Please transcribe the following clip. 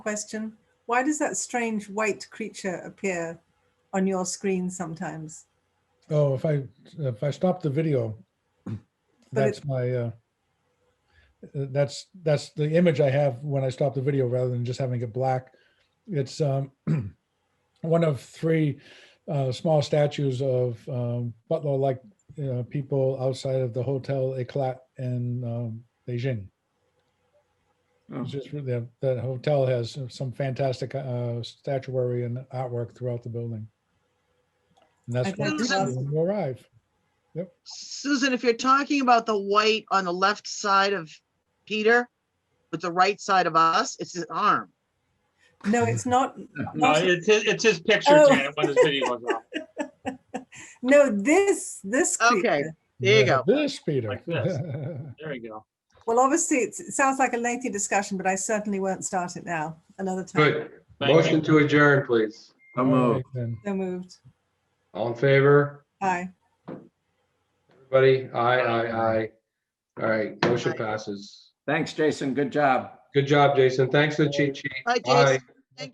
question? Why does that strange white creature appear on your screen sometimes? Oh, if I, if I stop the video, that's my, uh, that's, that's the image I have when I stop the video rather than just having it black. It's um, one of three uh, small statues of um, butler-like uh, people outside of the Hotel Eclat in um, Beijing. Oh, It's just really, that hotel has some fantastic uh, statuary and artwork throughout the building. And that's I'd where like to people ask- will arrive. Susan, if you're talking about the white on the left side of Peter, with the right side of us, it's his arm. No, it's not. No, it's, his- it's his picture, Oh. Janet, when his video goes off, No, this this creature. Okay. There you go. This, Peter. Like this. there we go. Well, obviously, it's, it sounds like a lengthy discussion, but I certainly won't start it now. Another time. Good. Thank you. Motion to adjourn, please. All right, then. So moved. All in favor? Aye. Everybody? Aye, aye, aye. All right, motion Aye. passes. Thanks, Jason. Good job. Good job, Jason. Thanks for the cheat sheet. Hi, Aye. Jason.